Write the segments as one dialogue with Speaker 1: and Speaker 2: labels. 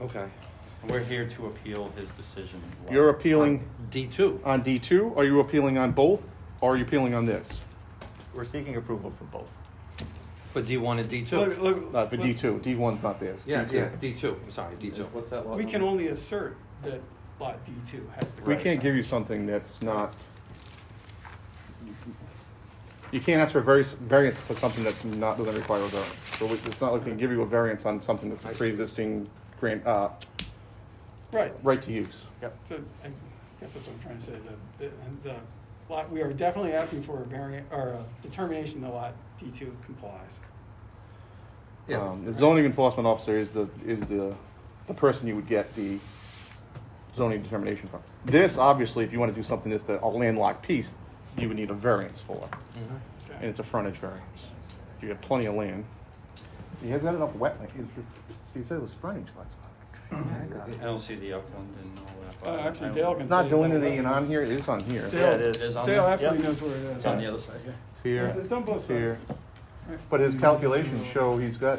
Speaker 1: Okay.
Speaker 2: We're here to appeal his decision.
Speaker 3: You're appealing
Speaker 1: D two.
Speaker 3: on D2? Are you appealing on both? Or are you appealing on this?
Speaker 4: We're seeking approval for both.
Speaker 1: For D one and D
Speaker 5: Look,
Speaker 1: two.
Speaker 5: look,
Speaker 3: Not Uh, for
Speaker 5: let's-
Speaker 3: D2. D1's not theirs.
Speaker 1: Yeah,
Speaker 3: D2.
Speaker 1: yeah, D two. Sorry, D two.
Speaker 2: What's that law?
Speaker 5: We can only assert that lot D two has the
Speaker 3: We
Speaker 5: right.
Speaker 3: can't give you something that's not. You can't ask for various, variance for something that's not, doesn't require a variance. So we- it's not like we can give you a variance on something that's a pre-existing grant, uh,
Speaker 5: Right,
Speaker 3: right to use.
Speaker 5: so I guess that's what I'm trying to say, the, the- and the lot, we are definitely asking for a variant, or a determination that lot D two complies.
Speaker 1: Yeah.
Speaker 3: Um, The zoning enforcement officer is the, is the, the person you would get the zoning determination from. This, obviously, if you want to do something that's the- a landlocked piece, you would need a variance for,
Speaker 1: Mhm.
Speaker 3: and it's a frontage variance. You have plenty of land. You have got enough wetland, you said it was frontage last
Speaker 2: I don't see the upland and all that.
Speaker 5: Uh, actually, Dale can.
Speaker 3: It's not
Speaker 5: tell you
Speaker 3: delineated
Speaker 5: that.
Speaker 3: and on here, it is on here.
Speaker 5: Dale-
Speaker 4: Yeah, it is.
Speaker 2: It is on
Speaker 5: Dale
Speaker 2: the-
Speaker 5: absolutely
Speaker 4: Yep.
Speaker 5: knows where it is.
Speaker 2: It's on the other side, yeah.
Speaker 3: It's
Speaker 5: It's-
Speaker 3: here,
Speaker 5: It's on both
Speaker 3: it's here.
Speaker 5: sides.
Speaker 3: But his calculations show he's got,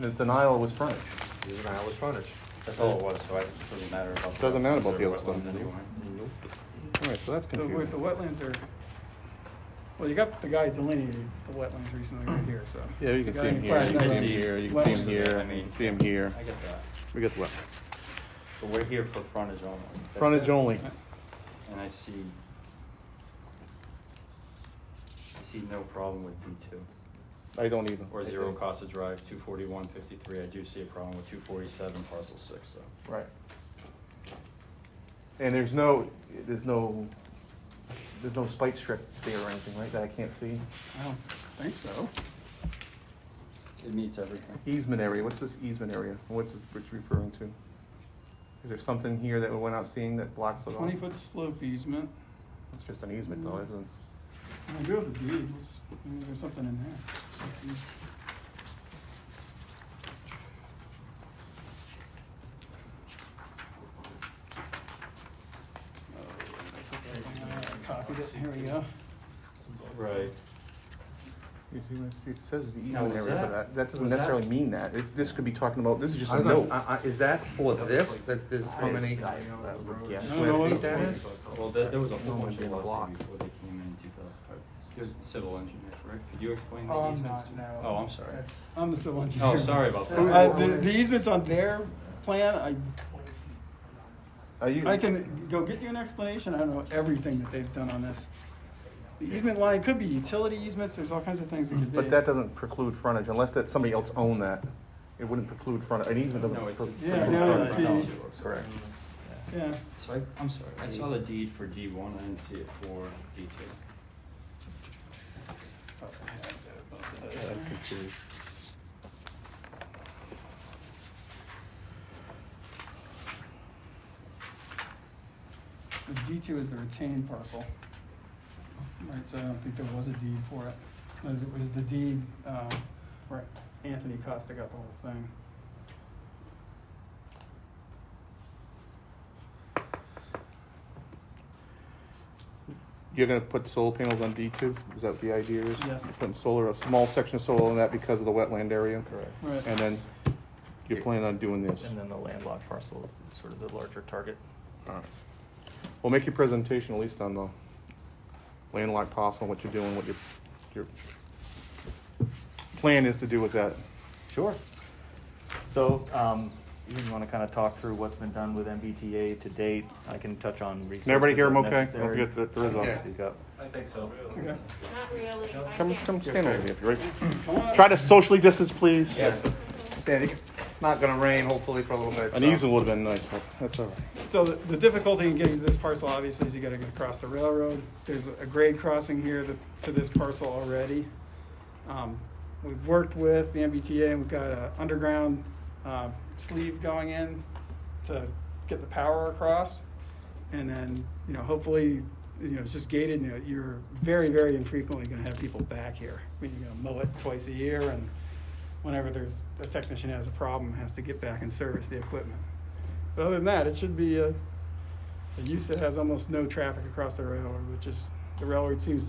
Speaker 3: his denial was frontage.
Speaker 1: Here's an Iowa frontage.
Speaker 2: That's all it was, so I- it doesn't matter about. the
Speaker 3: Doesn't matter about
Speaker 2: wetlands or
Speaker 3: the other
Speaker 2: wetlands
Speaker 3: stuff.
Speaker 2: anyway.
Speaker 1: Nope.
Speaker 3: All right, so that's
Speaker 5: So wait, the
Speaker 3: confusing.
Speaker 5: wetlands are, well, you got the guy delineated the wetlands recently right here, so.
Speaker 3: Yeah, you
Speaker 5: If
Speaker 3: can see
Speaker 5: got
Speaker 3: him
Speaker 5: any
Speaker 3: here, you can
Speaker 5: questions,
Speaker 3: see him
Speaker 2: Yeah.
Speaker 3: here, you can see him
Speaker 2: I
Speaker 3: here, you
Speaker 2: mean-
Speaker 3: can see him here.
Speaker 2: I get that,
Speaker 3: We got the wetland.
Speaker 2: but we're here for frontage only. That's
Speaker 3: Frontage
Speaker 2: it.
Speaker 3: only.
Speaker 2: And I see, I see no problem with D two,
Speaker 3: I don't even.
Speaker 2: or zero Casa Drive, two forty-one fifty-three, I do see a problem with two forty-seven parcel six, so.
Speaker 3: Right. And there's no, there's no, there's no spite strip there or anything, right, that I can't see?
Speaker 5: I don't think so.
Speaker 2: It meets everything.
Speaker 3: Easement area, what's this easement area? What's it what's it referring to? Is there something here that we're not seeing that blocks it off?
Speaker 5: Twenty foot slope easement.
Speaker 3: It's just an easement though, isn't it?
Speaker 5: I do have the deed, let's, maybe there's something in there. Uh, Copied it, here we go.
Speaker 2: Right.
Speaker 3: You see what I see? It says the
Speaker 2: Now,
Speaker 3: easement
Speaker 2: was
Speaker 3: area, but
Speaker 2: that-
Speaker 3: that, that doesn't
Speaker 2: was that-
Speaker 3: necessarily mean that. It- This could be talking about, this is just
Speaker 1: I
Speaker 3: a
Speaker 1: don't know,
Speaker 3: note.
Speaker 1: I- I- Is that for this? That's, this is how many?
Speaker 4: I don't know. Yeah.
Speaker 5: I don't know what it's
Speaker 1: Square feet that
Speaker 5: for.
Speaker 1: is?
Speaker 2: Well, there, there was a whole
Speaker 1: No,
Speaker 2: bunch
Speaker 1: it'd
Speaker 2: of
Speaker 1: be a
Speaker 2: lots here
Speaker 1: block.
Speaker 2: before they came in in two thousand five. There's a civil engineer, correct? Could you explain
Speaker 5: Oh,
Speaker 2: the
Speaker 5: I'm
Speaker 2: easements?
Speaker 5: not,
Speaker 2: to-
Speaker 5: no.
Speaker 2: Oh, I'm sorry.
Speaker 5: I'm the civil engineer.
Speaker 2: Oh, sorry about that.
Speaker 5: Uh, the, the easement's on their plan, I,
Speaker 3: Are you-
Speaker 5: I can go get you an explanation, I don't know everything that they've done on this. The easement line could be utility easements, there's all kinds of things that could be.
Speaker 3: But that doesn't preclude frontage unless that somebody else owned that. It wouldn't preclude frontage, an easement
Speaker 2: No,
Speaker 3: doesn't.
Speaker 2: it's, it's.
Speaker 5: Yeah,
Speaker 2: it's
Speaker 3: preclude
Speaker 5: no,
Speaker 2: on
Speaker 5: it's
Speaker 2: the
Speaker 5: the-
Speaker 2: technology books.
Speaker 3: Correct.
Speaker 5: Yeah.
Speaker 2: So I, I'm sorry, I saw the deed for D one, I didn't see it for D two.
Speaker 5: The D two is the retained parcel. Right, so I don't think there was a deed for it. No, It was the deed, um, where Anthony Costa got the whole thing.
Speaker 3: You're gonna put solar panels on D two, is that the idea is?
Speaker 5: Yes.
Speaker 3: You're Putting solar, a small section of solar on that because of the wetland area? Correct.
Speaker 5: Right.
Speaker 3: And then you're planning on doing this?
Speaker 4: And then the landlocked parcel is sort of the larger target.
Speaker 3: Alright. Well, make your presentation at least on the landlocked parcel, what you're doing, what your, your plan is to do with that.
Speaker 4: Sure. So, um, you want to kind of talk through what's been done with MBTA to date? I can touch on resources
Speaker 3: Can everybody hear
Speaker 4: as
Speaker 3: him okay? Don't
Speaker 4: necessary.
Speaker 3: forget that there is
Speaker 1: Yeah.
Speaker 3: a,
Speaker 4: Speak up.
Speaker 2: I think so.
Speaker 5: Okay.
Speaker 6: Not really. I
Speaker 3: come,
Speaker 6: can't.
Speaker 3: come stand over here, if you're right.
Speaker 5: Come on up.
Speaker 3: Try to socially distance, please.
Speaker 1: Standing. It's not gonna rain hopefully for a little bit.
Speaker 3: An
Speaker 1: so-
Speaker 3: easel would have been nice, but that's all right.
Speaker 5: So the the difficulty in getting to this parcel, obviously, is you gotta get across the railroad. There's a grade crossing here that, for this parcel already. Um, We've worked with the MBTA and we've got a underground uh, sleeve going in to get the power across. And then, you know, hopefully, you know, it's just gated and you're very, very infrequently gonna have people back here. I mean, you're gonna mow it twice a year and whenever there's, a technician has a problem, has to get back and service the equipment. But other than that, it should be a, a use that has almost no traffic across the railroad, which is, the railroad seems to